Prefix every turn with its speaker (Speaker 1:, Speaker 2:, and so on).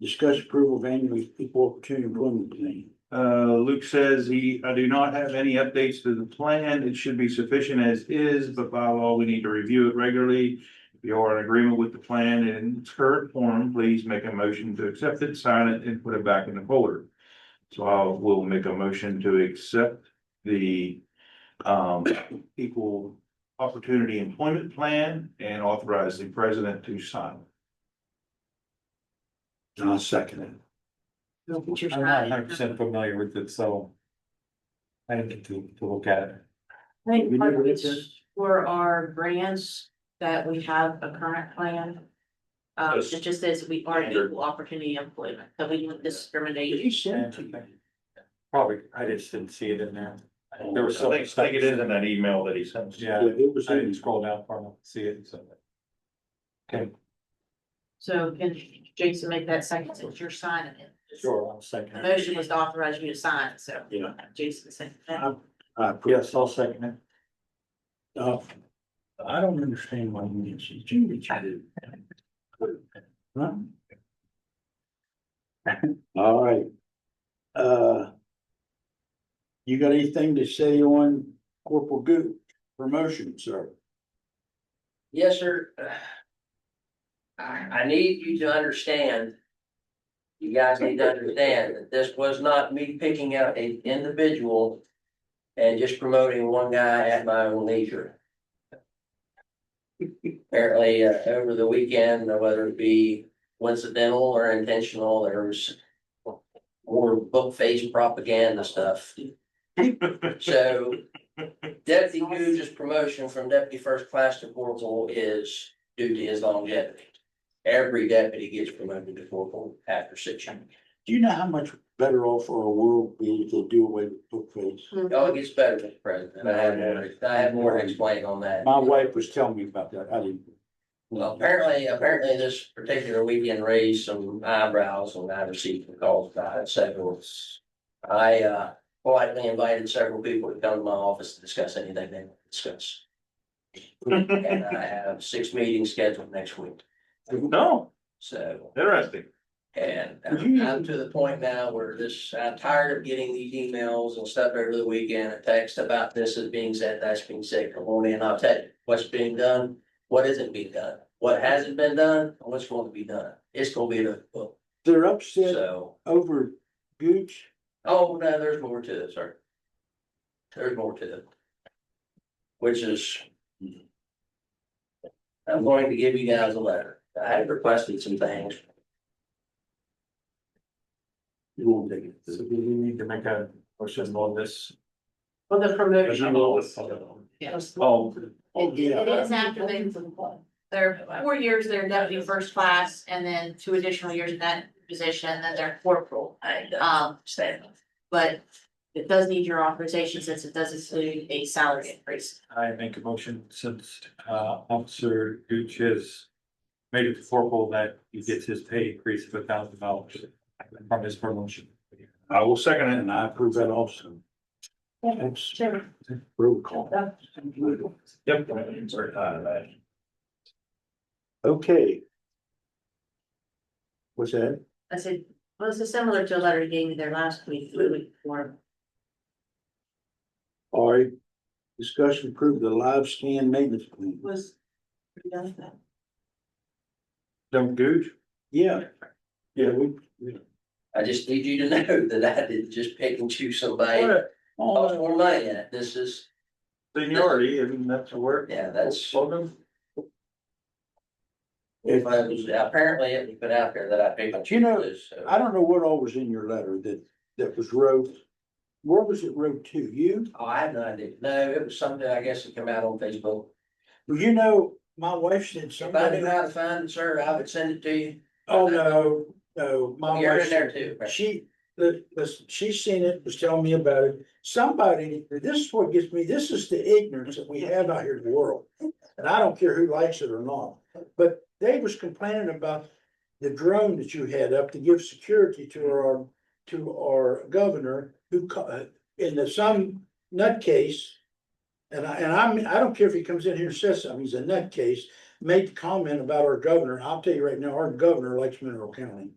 Speaker 1: Discuss approval of annual equal opportunity employment plan.
Speaker 2: Uh, Luke says he, I do not have any updates to the plan. It should be sufficient as is, but by law, we need to review it regularly. If you are in agreement with the plan in its current form, please make a motion to accept it, sign it, and put it back in the folder. So I will make a motion to accept the um, equal opportunity employment plan and authorize the president to sign.
Speaker 1: And I'll second it.
Speaker 3: I'm not hundred percent familiar with it, so. I didn't get to, to look at it.
Speaker 4: I think
Speaker 1: We
Speaker 4: part
Speaker 1: never
Speaker 4: of
Speaker 1: did
Speaker 4: it's
Speaker 1: this.
Speaker 4: for our grants that we have a current plan. Um,
Speaker 2: Yes.
Speaker 4: it just says we are
Speaker 2: Standard.
Speaker 4: equal opportunity employment, that we don't discriminate.
Speaker 1: sent to you.
Speaker 3: Probably, I just didn't see it in there. There
Speaker 2: I
Speaker 3: was so.
Speaker 2: think, I think it is in that email that he sent.
Speaker 1: Yeah,
Speaker 3: Yeah,
Speaker 1: It was
Speaker 3: I didn't
Speaker 1: in,
Speaker 3: scroll down far enough to see it, so.
Speaker 4: So can Jason make that second since you're signing it?
Speaker 3: Sure, I'll
Speaker 4: The
Speaker 3: second it.
Speaker 4: motion was to authorize you to sign, so
Speaker 1: yeah.
Speaker 4: Jason said that.
Speaker 1: I- I put-
Speaker 3: Yes, I'll second it.
Speaker 1: Uh, I don't understand why you didn't see Judy. Judy. Huh? All right. Uh. You got anything to say on Corporal Goop promotion, sir?
Speaker 5: Yes, sir. I, I need you to understand. You guys need to understand that this was not me picking out a individual. And just promoting one guy at my own leisure. Apparently, uh, over the weekend, uh, whether it be coincidental or intentional, there was. More book face propaganda stuff. So Deputy Gooch's promotion from deputy first class to corporal is due to his longevity. Every deputy gets promoted to corporal after six years.
Speaker 1: Do you know how much better off our world be if they do away with bookface?
Speaker 5: It all gets better, Mr. President. I have more, I have more to explain on that.
Speaker 1: My wife was telling me about that. I didn't.
Speaker 5: Well, apparently, apparently this particular weekend raised some eyebrows and I received some calls about it, so. I, uh, politely invited several people to come to my office to discuss anything they want to discuss. And I have six meetings scheduled next week,
Speaker 2: No,
Speaker 5: so.
Speaker 2: interesting.
Speaker 5: And uh,
Speaker 1: Would you-
Speaker 5: I'm to the point now where this, I'm tired of getting these emails and stuff over the weekend, a text about this is being said, that's being said, come on in, I'll tell you what's being done. What isn't being done, what hasn't been done, and what's going to be done, it's gonna be the book,
Speaker 1: They're upset
Speaker 5: so,
Speaker 1: over Gooch.
Speaker 5: oh, no, there's more to it, sir. There's more to it. Which is. hmm. I'm going to give you guys a letter, I had requested some things,
Speaker 1: You won't take it.
Speaker 3: So do we need to make a motion on this?
Speaker 4: Well, the promotion. Yes.
Speaker 3: Oh,
Speaker 1: Oh, yeah.
Speaker 4: It is after they, they're four years, they're deputy first class, and then two additional years in that position, then they're corporal.
Speaker 5: I
Speaker 4: Um,
Speaker 5: understand.
Speaker 4: but it does need your authorization since it does include a salary increase.
Speaker 3: I make a motion since uh Officer Gooch has made it formal that he gets his pay increase of a thousand dollars from his promotion.
Speaker 2: I will second it.
Speaker 1: And I approve that also. That's
Speaker 4: Sure.
Speaker 1: roll call.
Speaker 2: Yep. uh,
Speaker 1: Okay. What's that?
Speaker 4: I said, well, this is similar to a letter you gave me there last week, the week before.
Speaker 1: All right. Discussion approved the live scan maintenance plan.
Speaker 4: Was. we done that?
Speaker 2: Them Gooch?
Speaker 1: Yeah. Yeah, we. we-
Speaker 5: I just need you to know that I didn't just pick and choose somebody. Cost
Speaker 1: Oh,
Speaker 5: more money in it. This is,
Speaker 2: Seniority, I mean, that's a word.
Speaker 5: yeah, that's.
Speaker 2: Slogan?
Speaker 5: If I was, apparently it was put out there that I picked. and
Speaker 1: You know,
Speaker 5: choose, so.
Speaker 1: I don't know what all was in your letter that, that was wrote. Where was it wrote to? You?
Speaker 5: Oh, I have no idea. No, it was something, I guess it came out on Facebook.
Speaker 1: You know, my wife said
Speaker 5: If I
Speaker 1: somebody.
Speaker 5: knew how to find it, sir, I would send it to you.
Speaker 1: Oh, no, no, my
Speaker 5: Uh, You're in
Speaker 1: wife,
Speaker 5: there too. right?
Speaker 1: she, the, the, she seen it, was telling me about it. Somebody, this is what gets me, this is the ignorance that we have out here in the world. And I don't care who likes it or not, but they was complaining about the drone that you had up to give security to our, to our governor who, co- uh, in the some nutcase. And I, and I'm, I don't care if he comes in here and says something, he's a nutcase, made the comment about our governor, I'll tell you right now, our governor likes Mineral County.